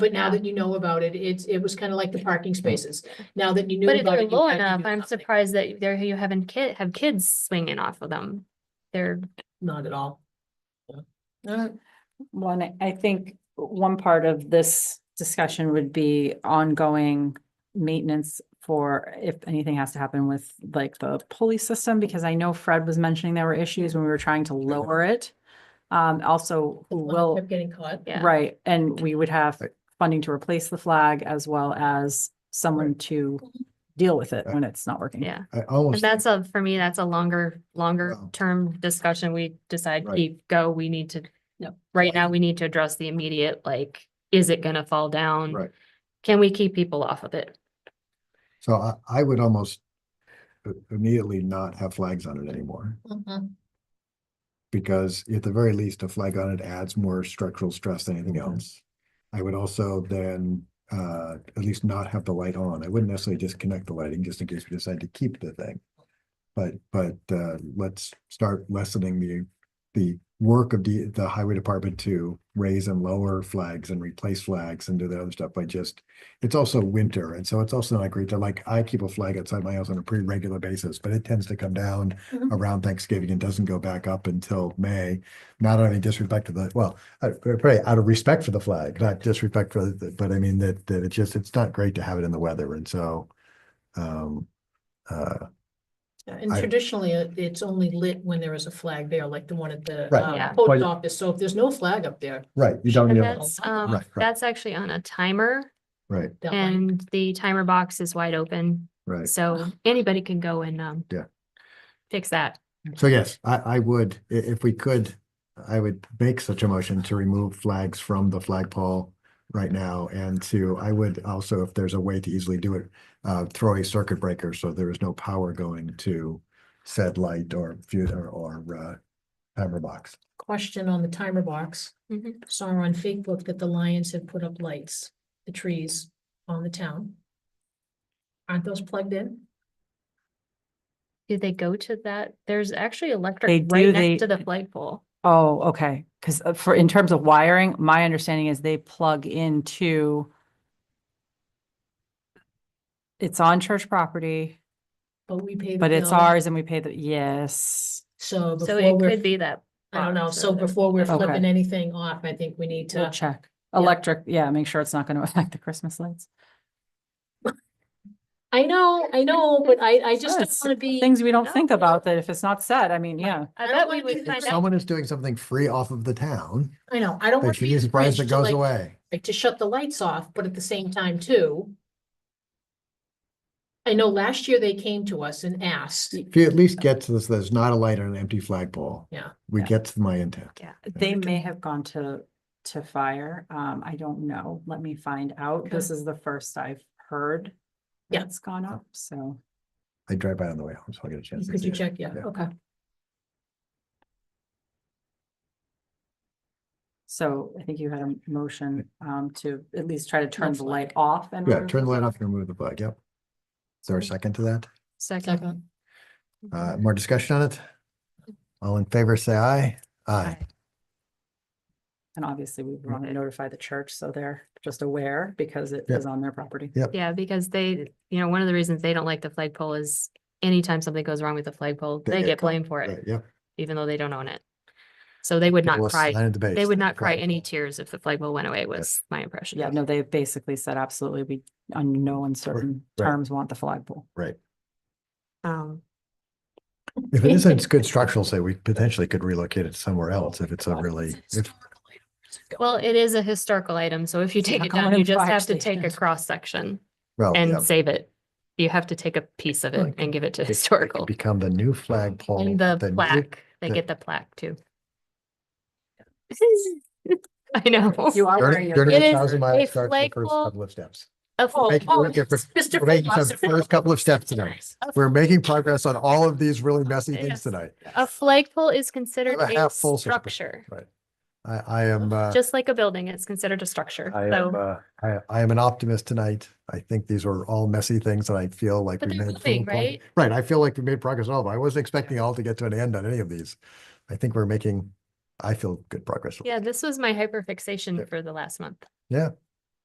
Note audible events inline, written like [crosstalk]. But now that you know about it, it's, it was kind of like the parking spaces. Now that you knew But if about they're it. you low had to do enough, I'm something. surprised that there you haven't kid, have kids swinging off of them. They're, Not at all. One, I- I think one part of this discussion would be ongoing maintenance for if anything has to happen with like the pulley system, because I know Fred was mentioning there were issues when we were trying to lower it. Um, also, who will, Kept Getting caught. yeah. right, and we would have Right. funding to replace the flag as well as someone to deal with it when it's not working. Yeah, I and almost, that's a, for me, that's a longer, longer Wow. term discussion. We decide Right. keep, go, we need to. Yep. Right now, we need to address the immediate, like, is it gonna fall down? right, Can we keep people off of it? so I, I would almost i- immediately not have flags on it anymore, Mhm. because at the very least, a flag on it adds more structural stress than anything else. I would also then, uh, at least not have the light on, I wouldn't necessarily disconnect the lighting, just in case we decide to keep the thing. But, but, uh, let's start lessening the, the work of the, the highway department to raise and lower flags and replace flags and do that other stuff by just it's also winter, and so it's also not great to like, I keep a flag outside my house on a pretty regular basis, but it tends to come down Mhm. around Thanksgiving and doesn't go back up until May. Not out of any disrespect to the, well, uh, probably out of respect for the flag, not disrespect for, the- but I mean that, that it's just, it's not great to have it in the weather, and so um, uh, And I- traditionally, it- it's only lit when there is a flag there, like the one at the Right. uh, Yeah. post office. So if there's no flag up there. right, you don't, And you that- know, that's, um, Oh, Right, right. that's actually on a timer right, that light- and the timer box is wide open. right. So anybody can go and, um. Yeah. Fix that. So yes, I, I would, i- if we could, I would make such a motion to remove flags from the flagpole right now and to, I would also, if there's a way to easily do it, uh, throw a circuit breaker so there is no power going to said light or fuse or, or, uh, timer box. Question on the timer box. Mhm. Saw on Facebook that the Lions have put up lights, the trees on the town. Aren't those plugged in? Do they go to that? There's actually They electric do, right they- next to the flagpole. Oh, okay, because for, in terms of wiring, my understanding is they plug into it's on church property. But we pay. the But it's bill, ours and we pay the, yes. So So before it we're, could be that. I don't know. box So or the- before we're Okay. flipping anything off, I think we need We'll to. check. yeah. Electric, yeah, make sure it's not going to [laughs] affect the Christmas lights. I know, I know, but I, I just don't Yes, want to be. Things we don't no. think about that if it's not said, I mean, yeah. I don't bet wanna we do would that. find If out. someone is doing something free off of the town, I know, I don't they want to should be be the surprised bridge it to goes like- away. like, to shut the lights off, but at the same time too. I know last year they came to us and asked, If you at least get to this, there's not a light on an empty flagpole. Yeah. We Yeah. get to my intent. They may have gone to, to fire. Um, I don't know. Let me find out. Okay. This is the first I've heard. Yeah. It's gone up, so. I drive by on the way home, so I'll get a chance. to could see you it. check? Yeah, Yeah. okay. So I think you had a motion, um, to at least try to turn the flag. light off and. Mm-hmm. Yeah, turn the light off and remove the plug, yep. Is there a second to that? Second. Second, Uh, more discussion on it? All in favor, say aye. Aye. Aye. And obviously we Mm-hmm. want to notify the church, so they're just aware because it Yeah. is on their property. Yeah, because they, you know, one of the reasons they don't like the flagpole is anytime something goes wrong with the flagpole, They they get get caught. blamed for Right, it, Yep. even though they don't own it. So they would not People cry, sign at the base, they would not cry flagpole. any tears if the flagpole went away was my impression. Yeah, no, they basically said absolutely, we on no uncertain right. terms want the flagpole. Right. Um, If it isn't good structural, say, we potentially could relocate it somewhere else if it's a Oh, really, if, well, it is a historical item, so if you take not it going down, in you just fire have to take a stations. cross section well, Oh, yeah, and save it. You have to take a piece of Well, it it and give it to it- it historical. become the new flagpole. And the new- [laughs] plaque, they the- get the plaque [laughs] too. I know. You are wearing Journey your. journey It a is thousand miles a starts with the first flagpole. couple of steps. A Oh, flag- Thank you. oh, We're getting- Mr. We're making the Philosopher. first couple of steps tonight. We're making progress on all of these really messy Yes. things tonight. A flagpole is considered a a half full circle. structure, Right. I, I am, uh. just like a building, it's considered a structure. I am, So, uh, I, I am an optimist tonight. I think these are all messy things and I feel like But we they're made. moving, full prog- right? Right, I feel like we made progress on all of them. I wasn't expecting all to get to an end on any of these. I think we're making, I feel good progress. yeah, this was my hyperfixation Yeah. for the last month. Yeah,